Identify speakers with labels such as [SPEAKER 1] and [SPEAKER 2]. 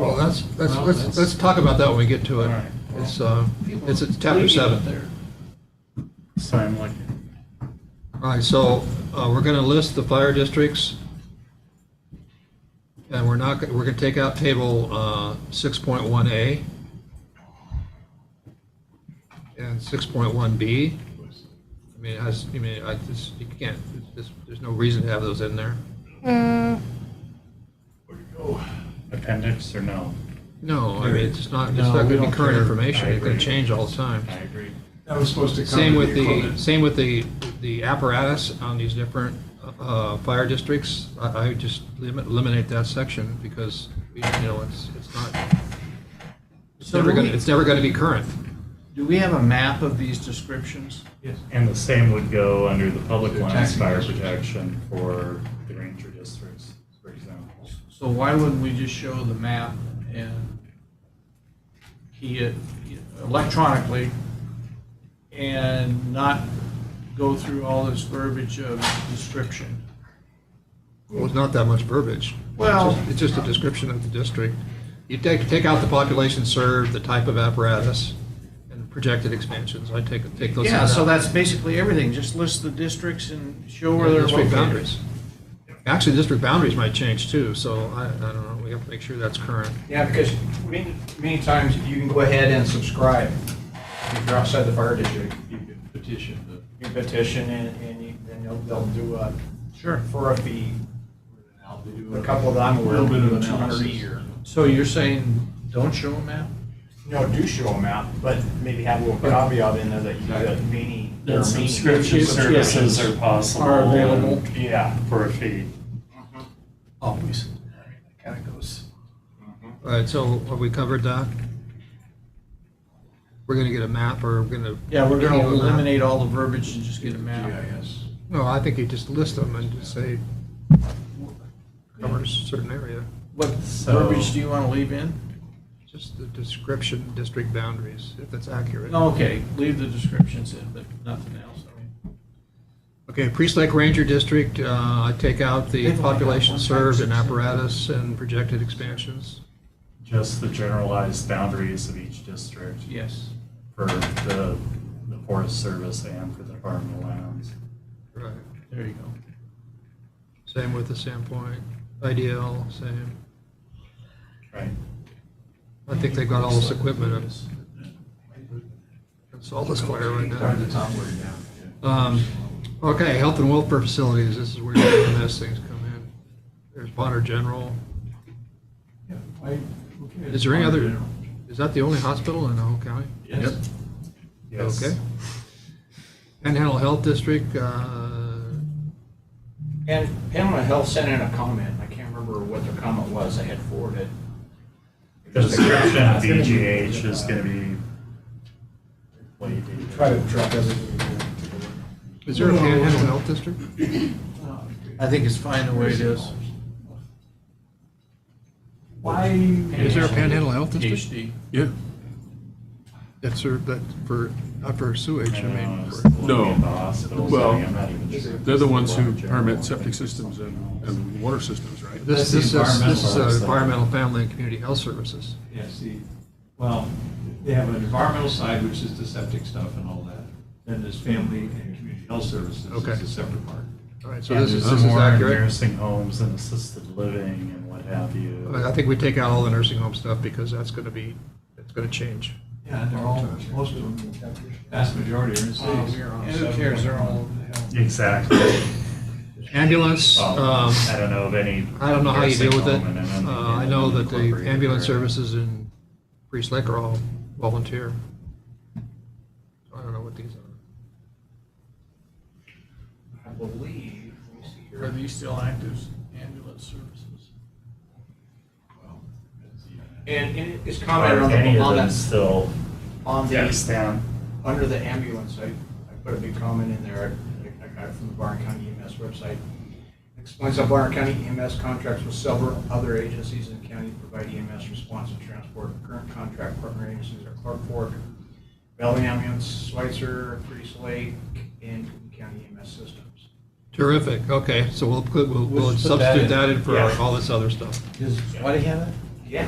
[SPEAKER 1] that's, that's,
[SPEAKER 2] Well,
[SPEAKER 1] let's,
[SPEAKER 2] that's-
[SPEAKER 1] let's talk about that when we get to
[SPEAKER 2] All
[SPEAKER 1] it.
[SPEAKER 2] right.
[SPEAKER 1] It's, uh,
[SPEAKER 2] People
[SPEAKER 1] it's it's chapter
[SPEAKER 2] leaving
[SPEAKER 1] seven.
[SPEAKER 2] there. Sorry, I'm like,
[SPEAKER 1] All right, so uh, we're going to list the fire districts. And we're not, we're going to take out table uh, 6.1A and 6.1B. I mean, it has, I mean, I just, you can't, it's just- there's no reason to have those in there.
[SPEAKER 2] appendix or no?
[SPEAKER 1] No, I mean, it's just not, it's not
[SPEAKER 3] No, we
[SPEAKER 1] going to be
[SPEAKER 3] don't
[SPEAKER 1] current
[SPEAKER 3] care.
[SPEAKER 1] information.
[SPEAKER 2] I
[SPEAKER 1] It's going
[SPEAKER 2] agree.
[SPEAKER 1] to change all the time.
[SPEAKER 2] I agree.
[SPEAKER 3] That was supposed to
[SPEAKER 1] Same
[SPEAKER 3] come with
[SPEAKER 1] with
[SPEAKER 3] the
[SPEAKER 1] the,
[SPEAKER 3] equipment.
[SPEAKER 1] same with the, the apparatus on these different uh, fire districts. I, I would just limit- eliminate that section because, you know, it's, it's not, it's
[SPEAKER 4] So
[SPEAKER 1] never
[SPEAKER 4] do
[SPEAKER 1] gonna,
[SPEAKER 4] we-
[SPEAKER 1] it's never gonna be current.
[SPEAKER 4] Do we have a map of these descriptions?
[SPEAKER 3] Yes.
[SPEAKER 2] And the same would go under the public
[SPEAKER 3] The
[SPEAKER 2] lands
[SPEAKER 3] taxing
[SPEAKER 2] fire
[SPEAKER 3] districts.
[SPEAKER 2] protection for the ranger districts, for example.
[SPEAKER 4] So why wouldn't we just show the map and key it electronically and not go through all this verbiage of description?
[SPEAKER 1] Well, it's not that much verbiage.
[SPEAKER 4] Well-
[SPEAKER 1] It's just- It's just a description of the district. You take, take out the population served, the type of apparatus, and projected expansions. I take, take those.
[SPEAKER 4] Yeah,
[SPEAKER 1] out.
[SPEAKER 4] so that's basically everything. Just list the districts and show where
[SPEAKER 1] Yeah,
[SPEAKER 4] they're
[SPEAKER 1] district
[SPEAKER 4] located.
[SPEAKER 1] boundaries. Actually, district boundaries might change too, so I, I don't know, we have to make sure that's current.
[SPEAKER 5] Yeah, because many, many times you can go ahead and subscribe. If you're outside the fire district,
[SPEAKER 3] You could petition the,
[SPEAKER 5] you petition and, and you- then they'll, they'll do a,
[SPEAKER 4] Sure.
[SPEAKER 5] for a fee,
[SPEAKER 3] they do
[SPEAKER 5] a couple that I'm aware
[SPEAKER 3] little
[SPEAKER 5] of,
[SPEAKER 3] bit of
[SPEAKER 5] two hundred a
[SPEAKER 3] analysis.
[SPEAKER 5] year.
[SPEAKER 4] So you're saying, don't show a map?
[SPEAKER 5] You know, do show them out, but maybe have a little copy of it in there that you, that many. there are
[SPEAKER 2] That
[SPEAKER 5] many-
[SPEAKER 2] subscription services are possible.
[SPEAKER 4] Are available.
[SPEAKER 5] Yeah.
[SPEAKER 2] For a fee.
[SPEAKER 4] Always. I mean, that Kind of goes.
[SPEAKER 1] All right, so have we covered that? We're gonna get a map or we're gonna?
[SPEAKER 4] Yeah, we're
[SPEAKER 1] Can
[SPEAKER 4] gonna
[SPEAKER 1] you do a map?
[SPEAKER 4] eliminate all the verbiage and just get a map.
[SPEAKER 3] GIS.
[SPEAKER 1] No, I think you just list them and just say covers certain area,
[SPEAKER 4] What
[SPEAKER 2] So-
[SPEAKER 4] verbiage do you wanna leave in?
[SPEAKER 1] just the description, district boundaries, if that's accurate.
[SPEAKER 4] Okay, leave the descriptions in, but nothing else. I mean,
[SPEAKER 1] Okay, Priest Lake Ranger District, uh, I take out the
[SPEAKER 4] They've only got
[SPEAKER 1] population
[SPEAKER 4] one
[SPEAKER 1] served and
[SPEAKER 4] five, six.
[SPEAKER 1] apparatus and projected expansions.
[SPEAKER 2] Just the generalized boundaries of each district
[SPEAKER 4] Yes.
[SPEAKER 2] for the, the Forest Service and for the Department of Lands.
[SPEAKER 1] Right.
[SPEAKER 4] There you go.
[SPEAKER 1] Same with the Sandpoint, IDL, same.
[SPEAKER 2] Right.
[SPEAKER 1] I think they've got all this equipment. It's- It's all this fire right now.
[SPEAKER 3] Start at the top way down. yeah.
[SPEAKER 1] Um, Okay, health and welfare facilities, this is where the mess things come in. There's Bonner General.
[SPEAKER 3] Yeah, I- okay,
[SPEAKER 1] Is there any
[SPEAKER 3] it's
[SPEAKER 1] other,
[SPEAKER 3] general.
[SPEAKER 1] is that the only hospital in the whole county?
[SPEAKER 2] Yes. Yes.
[SPEAKER 1] Okay. Panhandle Health District, uh,
[SPEAKER 5] And Pamela Health sent in a comment, I can't remember what their comment was, I had forwarded.
[SPEAKER 2] The description of BGH is gonna be way dated.
[SPEAKER 3] Try to track everything.
[SPEAKER 1] is there a Panhandle Health District?
[SPEAKER 4] I think it's fine the way it is.
[SPEAKER 3] Why?
[SPEAKER 1] Is there a Panhandle Health District?
[SPEAKER 4] PhD.
[SPEAKER 6] Yeah,
[SPEAKER 1] That's for, that, for, not for sewage, I mean, for-
[SPEAKER 6] No. Well,
[SPEAKER 2] they're
[SPEAKER 6] they're the ones who permit septic systems and, and water systems, right?
[SPEAKER 1] this, this is, this is uh,
[SPEAKER 2] Environmental.
[SPEAKER 1] Environmental Family and Community Health Services.
[SPEAKER 3] Yes, the, well, they have an environmental side, which is the septic stuff and all that. Then there's family and community health services,
[SPEAKER 1] Okay.
[SPEAKER 3] is a separate part.
[SPEAKER 1] All right, so this is, this is
[SPEAKER 2] more
[SPEAKER 1] accurate.
[SPEAKER 2] Nursing homes and assisted living and what have you.
[SPEAKER 1] I I think we take out all the nursing home stuff because that's going to be, it's going to change.
[SPEAKER 3] Yeah, and they're all, most of them, vast majority are in
[SPEAKER 4] Uh,
[SPEAKER 3] cities.
[SPEAKER 4] And who cares, they're all over the hill.
[SPEAKER 2] Exactly.
[SPEAKER 1] Ambulance,
[SPEAKER 2] Um,
[SPEAKER 1] um,
[SPEAKER 2] I don't know of any.
[SPEAKER 1] I don't know how you deal with it.
[SPEAKER 2] nursing home in an-
[SPEAKER 1] Uh, I
[SPEAKER 2] in
[SPEAKER 1] know
[SPEAKER 2] an
[SPEAKER 1] that the
[SPEAKER 2] unincorporated
[SPEAKER 1] ambulance
[SPEAKER 2] area.
[SPEAKER 1] services in Priest Lake are all volunteer. I don't know what these are.
[SPEAKER 5] I believe, let me see here.
[SPEAKER 4] Are these still active ambulance services?
[SPEAKER 5] And, and it's
[SPEAKER 2] Are
[SPEAKER 5] commented on
[SPEAKER 2] any
[SPEAKER 5] the, Um,
[SPEAKER 2] of
[SPEAKER 5] on
[SPEAKER 2] them
[SPEAKER 5] the,
[SPEAKER 2] still
[SPEAKER 5] on the,
[SPEAKER 2] extant?
[SPEAKER 5] under the ambulance, I, I put a big comment in there, I, I got it from the Barn County EMS website. Explains how Barn County EMS contracts with several other agencies in the county to provide EMS response and transport. Current contract partner agencies are Clark Fork, Valley Ambulance, Schweitzer, Priest Lake, and Cook County EMS Systems.
[SPEAKER 1] Terrific, okay, so we'll, put- we'll, we'll
[SPEAKER 4] Let's put that
[SPEAKER 1] substitute
[SPEAKER 4] in.
[SPEAKER 1] that in for
[SPEAKER 2] Yeah.
[SPEAKER 1] all this other stuff.
[SPEAKER 4] Does Whitey have it?
[SPEAKER 5] Yeah.